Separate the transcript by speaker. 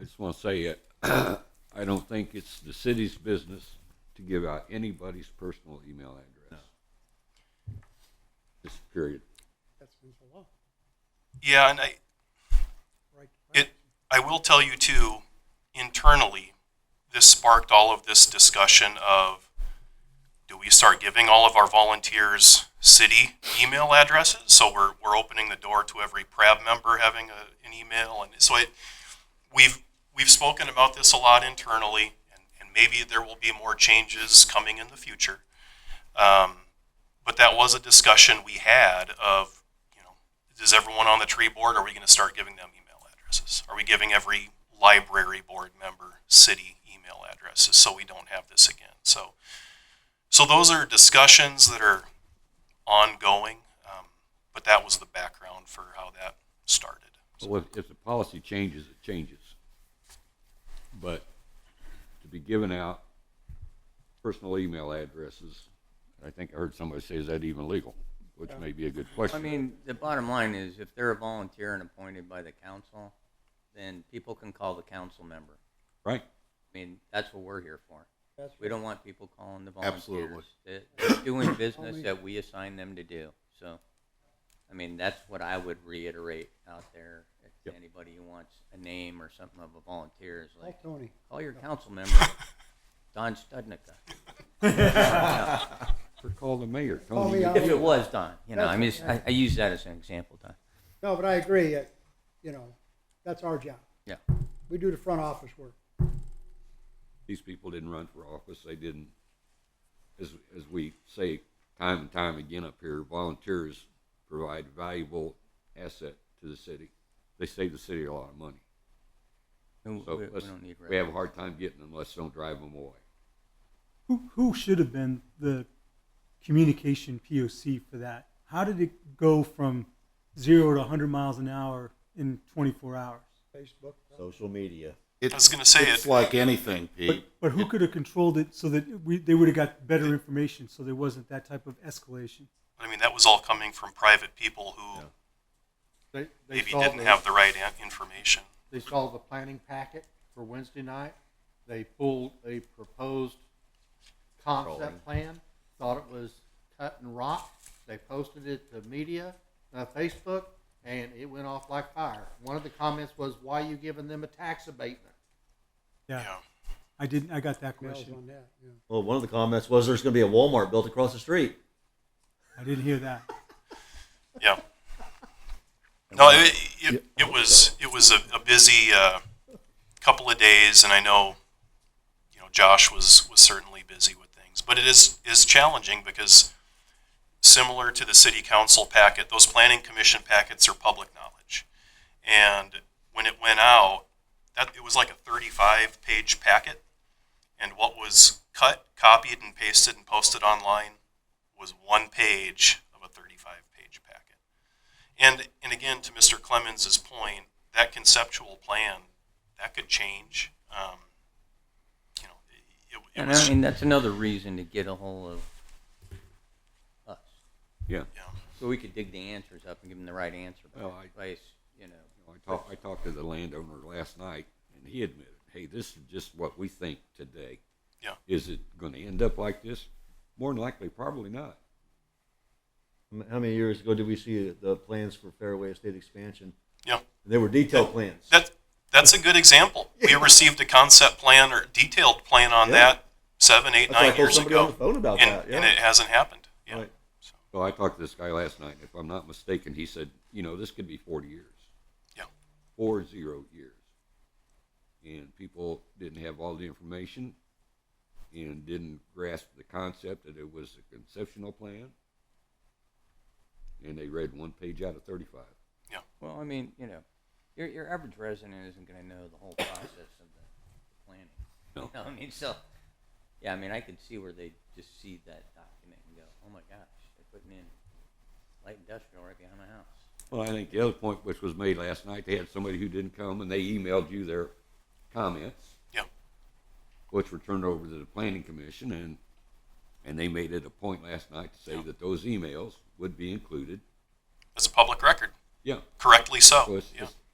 Speaker 1: just want to say it. I don't think it's the city's business to give out anybody's personal email address. Just period.
Speaker 2: That's against the law,
Speaker 3: Yeah, and I,
Speaker 2: right? to
Speaker 3: it, I will tell you too, internally, this sparked all of this discussion of, do we start giving all of our volunteers city email addresses? So we're, we're opening the door to every PRAB member having a, an email, and so it, we've, we've spoken about this a lot internally, and, and maybe there will be more changes coming in the future. Um, but that was a discussion we had of, you know, is everyone on the tree board? Are we going to start giving them email addresses? Are we giving every library board member city email addresses so we don't have this again? So, so those are discussions that are ongoing. Um, but that was the background for how that started.
Speaker 1: Well, if, if the policy changes, it changes. But to be given out personal email addresses, I think I heard somebody say, is that even legal? Which may be a good
Speaker 4: I
Speaker 1: question.
Speaker 4: mean, the bottom line is if they're a volunteer and appointed by the council, then people can call the council member.
Speaker 1: Right?
Speaker 4: I mean, that's what we're here for.
Speaker 2: That's
Speaker 4: We don't want people calling the volunteers.
Speaker 5: Absolutely.
Speaker 4: They- They're doing business that we assign them to do. So, I mean, that's what I would reiterate out there. If
Speaker 1: Yep.
Speaker 4: anybody who wants a name or something of a volunteer is
Speaker 2: Call
Speaker 4: like,
Speaker 2: Tony.
Speaker 4: call your council member, Don Studnicka.
Speaker 1: Or call the mayor.
Speaker 2: Call
Speaker 1: Tony,
Speaker 2: me
Speaker 1: you-
Speaker 2: out.
Speaker 4: If it was Don, you know, I mean,
Speaker 2: That's-
Speaker 4: I, I use that as an example, Don.
Speaker 2: No, but I agree, uh, you know, that's our job.
Speaker 4: Yeah.
Speaker 2: We do the front office work.
Speaker 1: these people didn't run for office. They didn't, as, as we say time and time again up here, volunteers provide valuable asset to the city. They save the city a lot of money.
Speaker 4: We,
Speaker 1: So
Speaker 4: we- we
Speaker 1: let's-
Speaker 4: don't need.
Speaker 1: we have a hard time getting them. Let's don't drive them away.
Speaker 6: Who, who should have been the communication POC for that? How did it go from zero to 100 miles an hour in 24 hours?
Speaker 2: Facebook,
Speaker 5: Social media. It's,
Speaker 3: I was gonna say
Speaker 5: it's
Speaker 3: it-
Speaker 5: like anything,
Speaker 6: But,
Speaker 5: Pete.
Speaker 6: but who could have controlled it so that we, they would have got better information so there wasn't that type of escalation?
Speaker 3: But I mean, that was all coming from private people who
Speaker 7: They, they
Speaker 3: maybe
Speaker 7: saw
Speaker 3: didn't
Speaker 7: the,
Speaker 3: have the right an- information.
Speaker 7: they saw the planning packet for Wednesday night. They pulled a proposed
Speaker 5: Drawing.
Speaker 7: concept plan, thought it was cut and rock. They posted it to media, uh, Facebook, and it went off like fire. One of the comments was, "Why you giving them a tax abatement?"
Speaker 6: Yeah,
Speaker 3: Yeah.
Speaker 6: I didn't. I got that
Speaker 2: emails
Speaker 6: question.
Speaker 2: on that, yeah.
Speaker 8: Well, one of the comments was there's going to be a Walmart built across the street.
Speaker 6: I didn't hear that.
Speaker 3: Yeah. No, it, it, it was, it was a, a busy, uh, couple of days and I know, you know, Josh was, was certainly busy with things, but it is, is challenging because similar to the city council packet, those planning commission packets are public knowledge. And when it went out, that, it was like a thirty-five page packet. And what was cut, copied and pasted and posted online was one page of a thirty-five page packet. And, and again, to Mr. Clemens's point, that conceptual plan, that could change. Um, you know, it, it
Speaker 4: And
Speaker 3: was,
Speaker 4: I mean, that's another reason to get a hold of us,
Speaker 1: Yeah.
Speaker 3: yeah.
Speaker 4: so we could dig the answers up and give them the right answer. by
Speaker 1: Well, I-
Speaker 4: place, you know.
Speaker 1: I talked, I talked to the landowner last night and he admitted, hey, this is just what we think today.
Speaker 3: Yeah.
Speaker 1: Is it going to end up like this? More than likely, probably not.
Speaker 8: How many years ago did we see the plans for Fairway Estate expansion?
Speaker 3: Yeah.
Speaker 8: They were detailed plans.
Speaker 3: That, that's a good example. We received a concept plan or detailed plan on
Speaker 8: Yeah.
Speaker 3: that seven, eight,
Speaker 8: That's why I
Speaker 3: nine
Speaker 8: told
Speaker 3: years
Speaker 8: somebody on the
Speaker 3: ago.
Speaker 8: phone about
Speaker 3: And,
Speaker 8: that.
Speaker 3: and
Speaker 8: yeah.
Speaker 3: it hasn't happened. Yeah.
Speaker 8: Right.
Speaker 1: So I talked to this guy last night. and If I'm not mistaken, he said, you know, this could be 40 years.
Speaker 3: Yeah.
Speaker 1: Four zero years. And people didn't have all the information and didn't grasp the concept that it was a conceptual plan. And they read one page out of 35.
Speaker 4: Well, I mean, you know, your, your average resident isn't going to know the whole process of the planning.
Speaker 1: No.
Speaker 4: You know, I mean, so, yeah, I mean, I could see where they just see that document and go, oh my gosh, they're putting in light industrial right behind my house.
Speaker 1: Well, I think the other point which was made last night, they had somebody who didn't come and they emailed you their comments,
Speaker 3: Yeah.
Speaker 1: which were turned over to the planning commission and, and they made it a point last night to say that those emails would be included.
Speaker 3: It's a public record.
Speaker 1: Yeah,
Speaker 3: Correctly so.
Speaker 1: so it's
Speaker 3: Oh, yeah.
Speaker 1: just